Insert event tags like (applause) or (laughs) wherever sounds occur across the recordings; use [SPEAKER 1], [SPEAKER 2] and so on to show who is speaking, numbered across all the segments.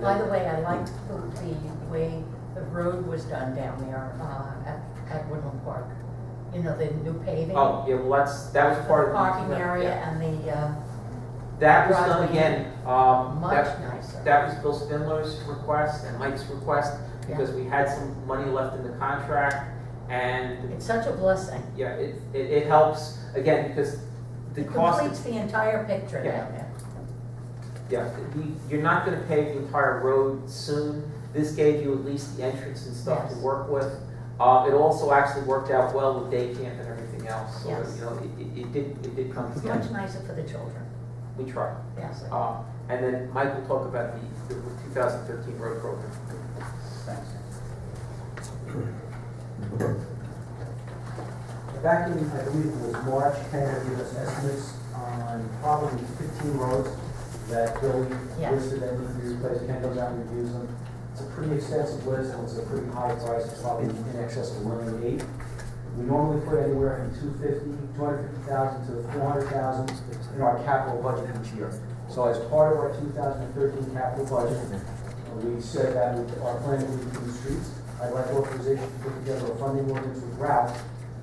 [SPEAKER 1] By the way, I liked the, the way the road was done down there, uh, at, at Woodland Park. You know, the new paving.
[SPEAKER 2] Oh, yeah, well, that's, that was
[SPEAKER 1] the
[SPEAKER 2] part of.
[SPEAKER 1] Parking
[SPEAKER 2] yeah.
[SPEAKER 1] area and the, uh,
[SPEAKER 2] That was done
[SPEAKER 1] driveway.
[SPEAKER 2] again, um,
[SPEAKER 1] much
[SPEAKER 2] that,
[SPEAKER 1] nicer.
[SPEAKER 2] that was Bill Spindler's request and Mike's request, because we had some money left in the contract, and,
[SPEAKER 1] It's such a blessing.
[SPEAKER 2] yeah, it, it, it helps, again, because the
[SPEAKER 1] It
[SPEAKER 2] cost
[SPEAKER 1] completes the entire picture
[SPEAKER 2] Yeah.
[SPEAKER 1] down there.
[SPEAKER 2] Yeah, we- you're not gonna pave the entire road soon. This gave you at least the entrance and stuff to
[SPEAKER 1] Yes.
[SPEAKER 2] work with. Uh, it also actually worked out well with day camp and everything else, so,
[SPEAKER 1] Yes.
[SPEAKER 2] you know, it, it- it did, it did come
[SPEAKER 1] It's
[SPEAKER 2] together.
[SPEAKER 1] much nicer for the children,
[SPEAKER 2] We tried.
[SPEAKER 1] yes.
[SPEAKER 2] Uh, and then Mike will talk about the, the two thousand thirteen road program.
[SPEAKER 3] Back in, I believe it was March, Ken had given us estimates on probably fifteen roads that Bill
[SPEAKER 1] Yes.
[SPEAKER 3] listed that need to be replaced, Ken goes out and reviews them. It's a pretty extensive list, and it's a pretty high price, it's probably in excess of one million eight. We normally put anywhere from two fifty, two hundred fifty thousand to four hundred thousand in our capital budget each year. So as part of our two thousand and thirteen capital budget, we said that we- our plan would be for the streets. I'd like authorization to put together a funding ordinance with Ralph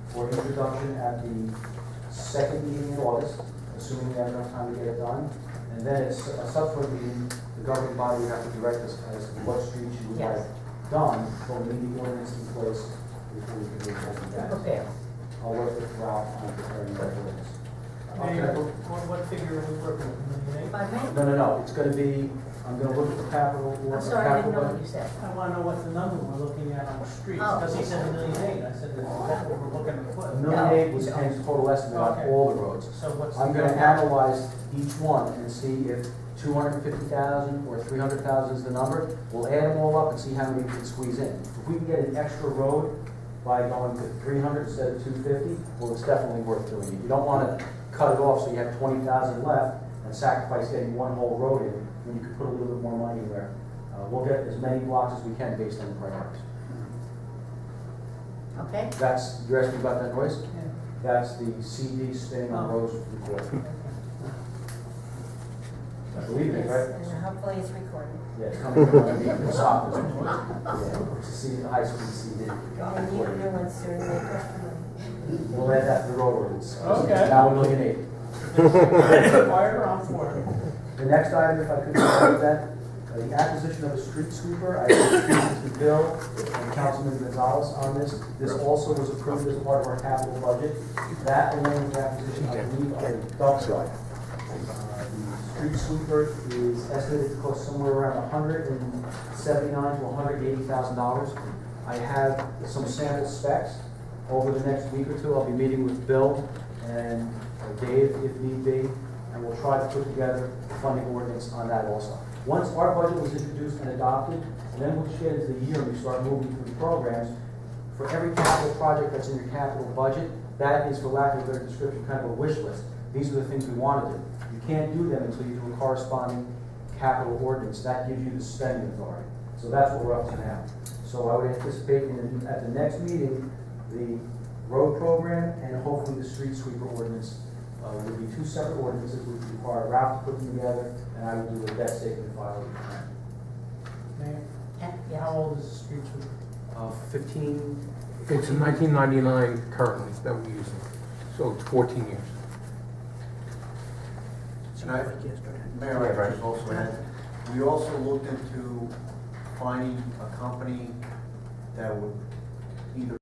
[SPEAKER 3] for introduction at the second meeting in August, assuming we have enough time to get it done. And then it's a subsequent meeting, the governing body would have to direct us as to what streets you would like
[SPEAKER 1] Yes.
[SPEAKER 3] done, but we need the ordinance in place before we can do something
[SPEAKER 1] We're
[SPEAKER 3] that.
[SPEAKER 1] prepared.
[SPEAKER 3] I'll work with Ralph on preparing that ordinance.
[SPEAKER 4] Mayor, what, what figure are we working with, Million
[SPEAKER 1] If I may,
[SPEAKER 3] No, no, no, it's gonna be, I'm gonna look at the capital, or
[SPEAKER 1] I'm
[SPEAKER 3] the
[SPEAKER 1] sorry, I didn't know
[SPEAKER 3] capital.
[SPEAKER 1] what you said.
[SPEAKER 4] eight? I wanna know what the number we're looking at on the streets,
[SPEAKER 1] Oh.
[SPEAKER 4] because he said a million eight, I said, well, that's what we're looking to
[SPEAKER 3] A
[SPEAKER 4] put.
[SPEAKER 3] million eight was Ken's total estimate on
[SPEAKER 4] Okay.
[SPEAKER 3] all the roads.
[SPEAKER 4] So what's the?
[SPEAKER 3] I'm gonna
[SPEAKER 4] number?
[SPEAKER 3] analyze each one and see if two hundred and fifty thousand or three hundred thousand is the number. We'll add them all up and see how many we can squeeze in. If we can get an extra road by going to three hundred instead of two fifty, well, it's definitely worth doing it. You don't wanna cut it off so you have twenty thousand left and sacrifice getting one whole road in, when you could put a little bit more money there. Uh, we'll get as many blocks as we can based on the priorities.
[SPEAKER 1] Okay?
[SPEAKER 3] That's, you're asking about that noise?
[SPEAKER 4] Yeah.
[SPEAKER 3] That's the CD spinning on
[SPEAKER 4] Oh.
[SPEAKER 3] roads report.
[SPEAKER 4] (laughs)
[SPEAKER 3] I believe it, right?
[SPEAKER 1] And hopefully it's recorded.
[SPEAKER 3] Yeah, it's coming from underneath the soffit. Yeah, it's a C, high school CD.
[SPEAKER 5] And you do one soon, make a
[SPEAKER 3] We'll add that to the road ordinance.
[SPEAKER 4] Okay.
[SPEAKER 3] Now we're looking at eight.
[SPEAKER 4] (laughs) Fire on board.
[SPEAKER 3] The next item, if I could describe that, uh, the acquisition of a street sweeper, I introduced the bill and Councilman Gonzalez on this. This also was approved as part of our capital budget. That along with the acquisition, I believe, of a dump truck. Uh, The street sweeper is estimated to cost somewhere around hundred and seventy-nine to hundred eighty thousand dollars. I have some sample specs. Over the next week or two, I'll be meeting with Bill and Dave if need be, and we'll try to put together a funding ordinance on that also. Once our budget was introduced and adopted, then we'll just get into the year and we start moving through programs. For every capital project that's in your capital budget, that is, for lack of a better description, kind of a wish list. These are the things we want to do. You can't do them until you do a corresponding capital ordinance. That gives you the spending authority. So that's what we're up to now. So I would anticipate in, at the next meeting, the road program and hopefully the street sweeper ordinance. Uh, would be two separate ordinances, which require Ralph to put them together, and I would do a debt statement file.
[SPEAKER 4] Mayor,
[SPEAKER 1] Yeah,
[SPEAKER 4] how
[SPEAKER 1] yeah.
[SPEAKER 4] old is the street sweeper?
[SPEAKER 3] Uh, fifteen,
[SPEAKER 6] It's in 1999 currently that we're using, so it's 14 years.
[SPEAKER 7] Mayor, I just also add, we also looked into finding a company that would either